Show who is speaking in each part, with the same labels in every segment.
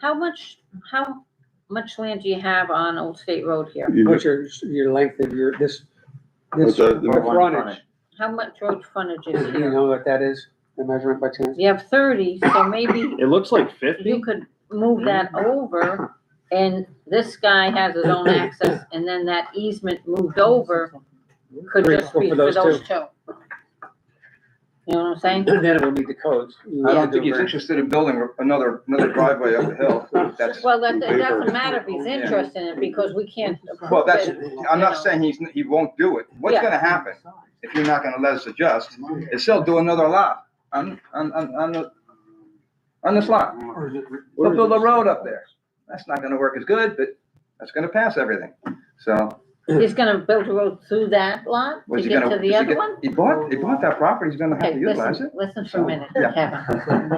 Speaker 1: How much, how much land do you have on Old State Road here?
Speaker 2: You
Speaker 3: What's
Speaker 2: just-
Speaker 3: your, your length of your, this,
Speaker 2: What's
Speaker 3: this,
Speaker 2: that?
Speaker 3: the frontage?
Speaker 1: How much road frontage is
Speaker 3: Do you
Speaker 1: here?
Speaker 3: know what that is, the measurement by chance?
Speaker 1: You have thirty, so maybe
Speaker 4: It looks like
Speaker 1: you
Speaker 4: fifty.
Speaker 1: could move that over and this guy has his own access and then that easement moved over could
Speaker 3: Three,
Speaker 1: just
Speaker 3: four
Speaker 1: be for
Speaker 3: for those
Speaker 1: those two. You know what I'm saying?
Speaker 3: Then it will need the codes.
Speaker 5: I don't think he's interested in building another, another driveway up the hill. That's,
Speaker 1: Well, that, it doesn't
Speaker 2: Paper.
Speaker 1: matter if he's
Speaker 5: Yeah.
Speaker 1: interested in it because we can't.
Speaker 5: well, that's, I'm
Speaker 1: You know.
Speaker 5: not saying he's, he won't do it. What's
Speaker 1: Yeah.
Speaker 5: gonna happen if you're not gonna let us adjust? Is he'll do another lot on, on, on, on the, on this lot. They'll build a road up there. That's not gonna work as good, but that's gonna pass everything. So.
Speaker 1: He's gonna build a road through that lot
Speaker 5: was
Speaker 1: to
Speaker 5: he
Speaker 1: get
Speaker 5: gonna-
Speaker 1: to the
Speaker 5: is he
Speaker 1: other
Speaker 5: get-
Speaker 1: one?
Speaker 5: He bought, he bought that property. He's gonna have
Speaker 1: Okay,
Speaker 5: to utilize it.
Speaker 1: listen, listen for a minute,
Speaker 5: Yeah.
Speaker 1: Kevin,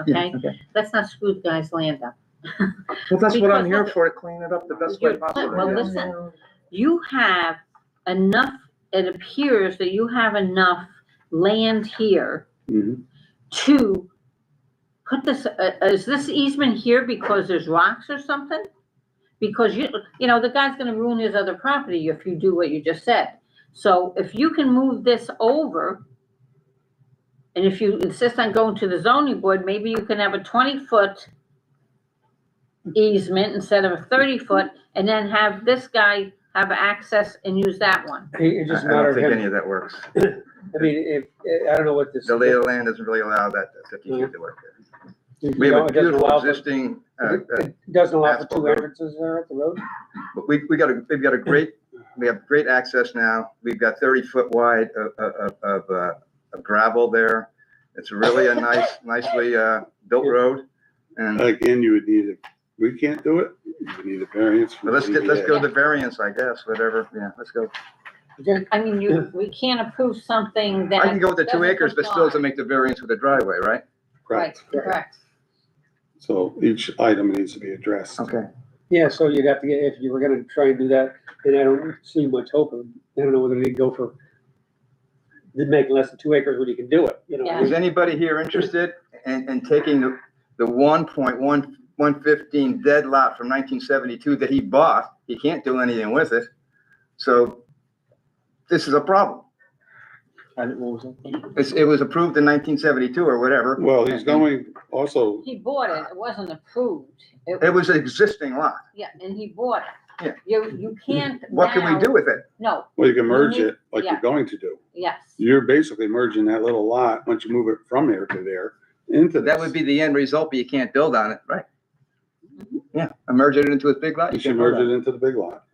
Speaker 1: Kevin, okay? Let's not screw the guy's land up.
Speaker 5: Well, that's what I'm
Speaker 1: Because
Speaker 5: here
Speaker 1: look-
Speaker 5: for, to clean it up the best way
Speaker 1: You're-
Speaker 5: possible.
Speaker 1: Well,
Speaker 5: yeah.
Speaker 1: listen, you have enough, it appears that you have enough land here
Speaker 5: Mm-hmm.
Speaker 2: Mhm.
Speaker 1: to put this, uh, is this easement here because there's rocks or something? Because you, you know, the guy's gonna ruin his other property if you do what you just said. So if you can move this over, and if you insist on going to the zoning board, maybe you can have a twenty-foot easement instead of a thirty-foot, and then have this guy have access and use that one.
Speaker 3: It
Speaker 5: I I
Speaker 3: just
Speaker 5: don't
Speaker 3: mattered
Speaker 5: think any
Speaker 3: him,
Speaker 5: of that works.
Speaker 3: I mean, if, I don't know what this.
Speaker 5: The lay of the land doesn't really allow that fifty feet to work there.
Speaker 3: you
Speaker 5: We
Speaker 3: know,
Speaker 5: have
Speaker 3: Mm-hmm. it
Speaker 5: a
Speaker 3: doesn't allow
Speaker 5: beautiful
Speaker 3: for-
Speaker 5: existing, uh, uh,
Speaker 3: It doesn't allow for
Speaker 5: asphalt
Speaker 3: two
Speaker 5: road.
Speaker 3: entrances there at the road?
Speaker 5: but we, we got a, we've got a great, we have great access now. We've got thirty foot wide of, of, of, uh, of gravel there. It's really a nice, nicely, uh, built road. And,
Speaker 2: Again, you would need, a. we can't do it, you would need a variance. uh, from
Speaker 5: but let's get, let's
Speaker 2: ZBA.
Speaker 5: go to variance, I guess, whatever, yeah, let's go.
Speaker 3: Okay,
Speaker 1: I mean, you, we can't approve something that.
Speaker 5: I can go with the two
Speaker 1: doesn't
Speaker 5: acres, but still
Speaker 1: comply.
Speaker 5: doesn't make the variance with the driveway, right?
Speaker 1: Right,
Speaker 2: Correct.
Speaker 1: correct.
Speaker 2: So each item needs to be addressed.
Speaker 5: Okay.
Speaker 3: Yeah, so you'd have to get, if you were gonna try and do that, and I don't see much hope of, I don't know whether they'd go for, they'd make less than two acres when you can do it, you know?
Speaker 1: Yeah.
Speaker 5: Is anybody here interested in, in taking the, the one point one, one fifteen dead lot from nineteen seventy-two that he bought? He can't do anything with it, so this is a problem. It's, it was approved in nineteen seventy-two or whatever.
Speaker 2: Well, he's going also,
Speaker 1: He bought it, it wasn't approved.
Speaker 5: It was an existing lot.
Speaker 1: Yeah, and he bought it.
Speaker 5: Yeah.
Speaker 1: You, you can't
Speaker 5: What can
Speaker 1: now-
Speaker 5: we do with it?
Speaker 1: No,
Speaker 2: well, you can merge it like
Speaker 1: Yeah.
Speaker 2: you're going to do.
Speaker 1: yes.
Speaker 2: You're basically merging that little lot, once you move it from here to there, into this.
Speaker 5: That would be the end result, but you can't build on it, right? Yeah, I merged it into a big lot.
Speaker 2: You should
Speaker 5: can't build
Speaker 2: merge
Speaker 5: on
Speaker 2: it into the big lot.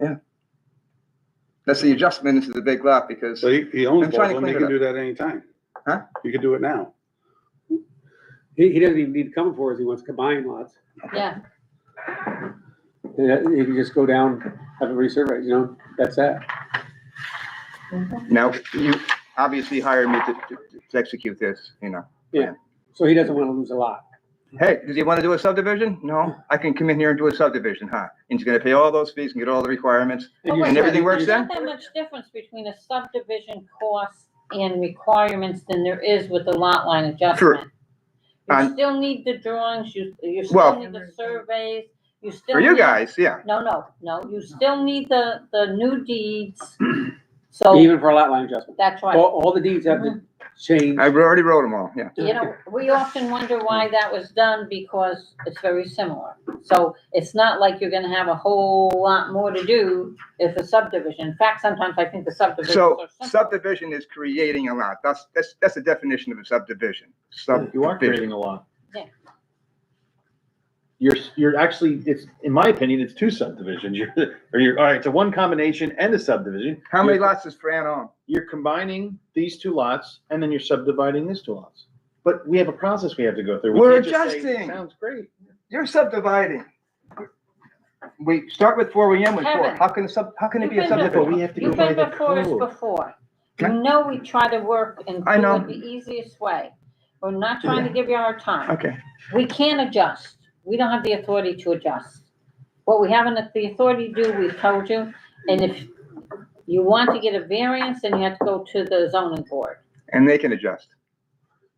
Speaker 5: That's the adjustment into the big lot because.
Speaker 2: So he, he
Speaker 5: I'm
Speaker 2: owns
Speaker 5: trying
Speaker 2: both
Speaker 5: to
Speaker 2: of them, he
Speaker 5: clean it
Speaker 2: can do that anytime.
Speaker 5: Huh?
Speaker 2: You can do it now.
Speaker 3: He, he doesn't even need to come for us, he wants combined lots.
Speaker 1: Yeah,
Speaker 3: Yeah, You can just go down, have it resurveyed, you know, that's that.
Speaker 5: Now, you obviously hired me to, to- to execute this, you know.
Speaker 3: So he doesn't wanna lose a lot.
Speaker 5: Hey, does he want to do a subdivision? No, I can come in here and do a subdivision, huh? And he's gonna pay all those fees and get all the requirements.
Speaker 1: And
Speaker 3: you're-
Speaker 5: everything works
Speaker 1: there's
Speaker 5: Yeah.
Speaker 1: not that much difference between a subdivision cost and requirements than there is with the lot line adjustment. You
Speaker 5: And-
Speaker 1: still need the drawings, you, you
Speaker 5: Well-
Speaker 1: still need the surveys, you still.
Speaker 5: For you
Speaker 1: need-
Speaker 5: guys, yeah.
Speaker 1: No, no, no, you still need the, the new deeds, so
Speaker 3: Even for a lot line adjustment.
Speaker 1: that's why.
Speaker 3: All, all the deeds have to change.
Speaker 5: I already wrote them all, yeah.
Speaker 1: you know, we often wonder
Speaker 5: Mm.
Speaker 1: why that was done because it's very similar. So it's not like you're gonna have a whole lot more to do if a subdivision. In fact, sometimes I think the subdivisions
Speaker 5: So
Speaker 1: are simple.
Speaker 5: subdivision is creating a lot. That's, that's, that's the definition of a subdivision.
Speaker 4: You are
Speaker 5: Subdivision.
Speaker 4: creating a lot.
Speaker 1: Yeah.
Speaker 4: You're, you're actually, it's, in my opinion, it's two subdivisions. You're, or you're, all right, it's a one combination and a subdivision.
Speaker 5: How many
Speaker 4: You're-
Speaker 5: lots is Fran on?
Speaker 4: You're combining these two lots and then you're subdividing these two lots. But we have a process we have to go through. We
Speaker 5: We're
Speaker 4: can't just say,
Speaker 5: adjusting.
Speaker 4: Sounds great.
Speaker 5: You're subdividing. We start with four, we end with four.
Speaker 1: Kevin.
Speaker 5: How can a sub, how can it be a
Speaker 1: You've been
Speaker 4: But
Speaker 5: subdivision?
Speaker 4: we have to go
Speaker 1: You've
Speaker 4: by
Speaker 1: been
Speaker 4: the
Speaker 1: before us
Speaker 4: code.
Speaker 1: before. You
Speaker 5: Okay.
Speaker 1: know we try to work and
Speaker 5: I
Speaker 1: do
Speaker 5: know.
Speaker 1: it the easiest way. We're not trying to give you our time.
Speaker 5: Okay,
Speaker 1: We can adjust. We don't have the authority to adjust. What we have not the authority to do, we've told you. And if you want to get a variance, then you have to go to the zoning board.
Speaker 5: and they can adjust.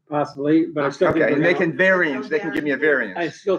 Speaker 3: Possibly, but I still think.
Speaker 5: Okay,
Speaker 3: we're
Speaker 5: and they
Speaker 3: gonna-
Speaker 5: can variance, they can give me a variance.
Speaker 3: I still